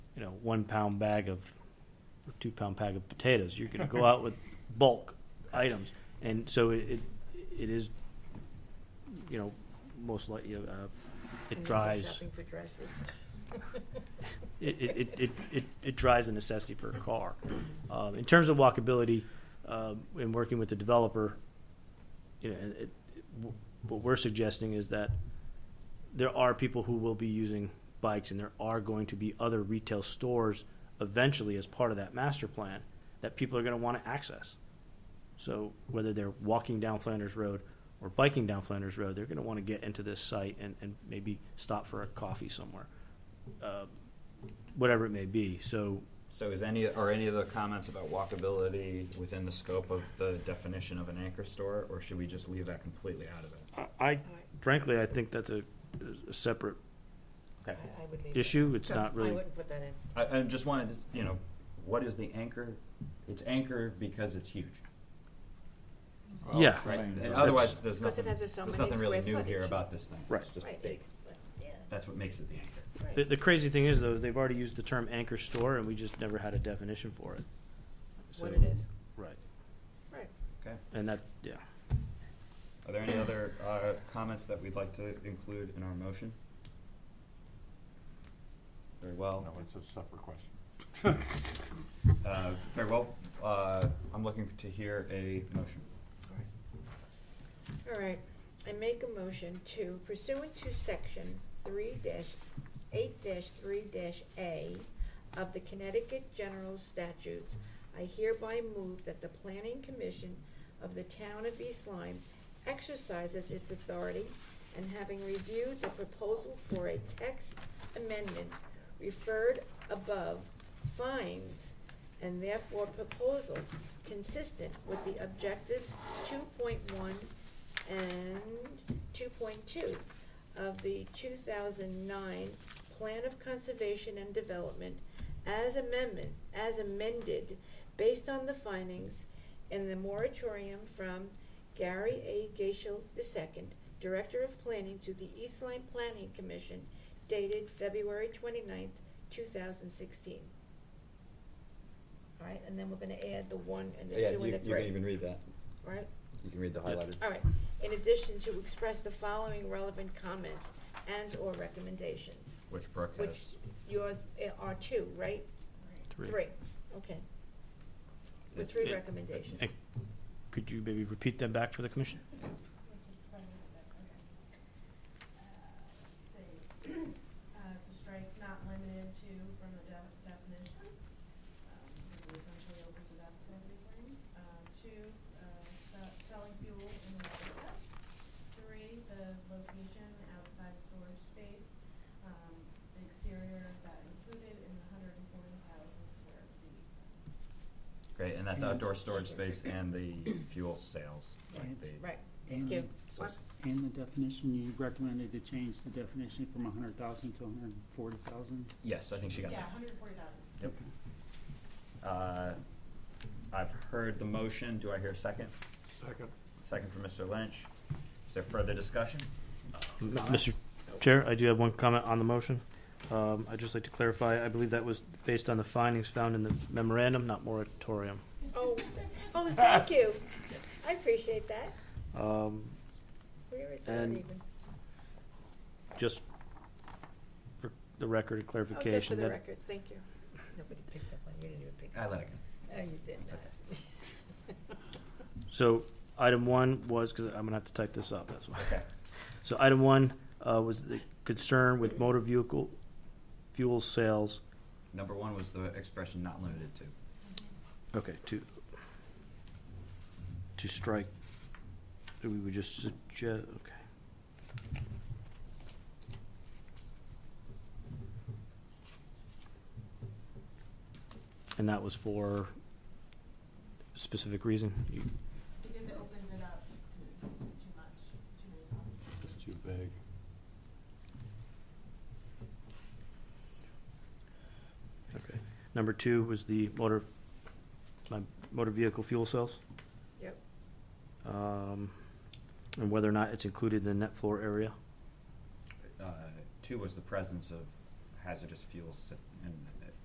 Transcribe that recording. you know, one pound bag of, or two pound bag of potatoes. You're going to go out with bulk items, and so it, it, it is, you know, most likely uh, it drives Shopping for dresses. it, it, it- it, it, it drives the necessity for a car. Um, in terms of walkability, um, in working with the developer, you know, it, it- w- what we're suggesting is that there are people who will be using bikes, and there are going to be other retail stores eventually as part of that master plan that people are going to want to access. So whether they're walking down Flanders Road or biking down Flanders Road, they're going to want to get into this site and, and maybe stop for a coffee somewhere. Uh, whatever it may be. So So is any, are any of the comments about walkability within the scope of the definition of an anchor store, or should we just leave that completely out of it? I- I, frankly, I think that's a, a separate Okay. I I would leave. it. issue. It's So not really. I wouldn't put that in. I, I just wanted to, s- you know, what is the anchor? It's anchor because it's huge, Yeah. right? And That's- otherwise, there's Because it has nothing, a so there's many nothing really square new here footage. about this thing. Right. It's just Right, big. it's- but, yeah, That's what makes it the anchor. right. The, the crazy thing is though, they've already used the term anchor store and we just never had a definition for it. So- What it is. Right. Right. Okay. And that, yeah. Are there any other uh, comments that we'd like to include in our motion? Very well. No, it's a separate question. Uh, Very well. Uh, I'm looking to hear a motion. All right, I make a motion to pursuant to section three dash, eight dash three dash A of the Connecticut General Statutes, I hereby move that the Planning Commission of the Town of East Lyme exercises its authority and having reviewed the proposal for a text amendment referred above, finds and therefore proposal consistent with the objectives two point one and two point two of the two thousand nine Plan of Conservation and Development as amendment, as amended, based on the findings in the moratorium from Gary A. Gaishel II, Director of Planning to the East Lyme Planning Commission dated February twenty-ninth, two thousand sixteen. All right, and then we're gonna add the one and the two and the three. read that. Right? You can read the highlighted. All right, in addition to express the following relevant comments and/or recommendations, Which Brooke which has. yours eh, are two, right? Three. okay. With three Yeah. recommendations. And Could you maybe repeat them back for the commission? say, uh, to strike not limited to from the de- definition. um, because it Essentially opens it up to everything. Um, Two, uh, se- selling fuel in the area. Three, the location outside storage space. Um, The exterior is that included in the hundred and forty thousand square feet. Great, and that's outdoor storage space and the fuel sales. like And- the- Right, And Give. so- and the definition, you recommended to change the definition from hundred thousand to hundred and forty thousand? Yes, I think she got Yeah, that. hundred and forty thousand. Yep. Uh, I've heard the motion. Do I hear a second? Second. Second from Mr. Lynch. Is there further discussion? M- Mr. Chair, I do have one comment on the motion. Um, I'd just like to clarify, I believe that was based on the findings found in the memorandum, not moratorium. oh, oh, thank you, I appreciate that, Um, where is that And even? just for the record of clarification. Okay, Oh, for the that- record, thank you. Nobody picked up on, you didn't even pick I let it go. Oh, you did It's not. So item one was, because I'm gonna have to type this up, that's why. Okay. So item one uh, was the concern with motor vehicle fuel sales, Number one was the expression not limited to. okay, to, to strike, so we would just suggest, okay. And that was for specific reason? You- Because it opens it up to, it's too much, too many possibilities. It's too big. Okay. Number two was the motor, my motor vehicle fuel cells? Yep. Um, and whether or not it's included in the net floor area? Uh, Two was the presence of hazardous fuels in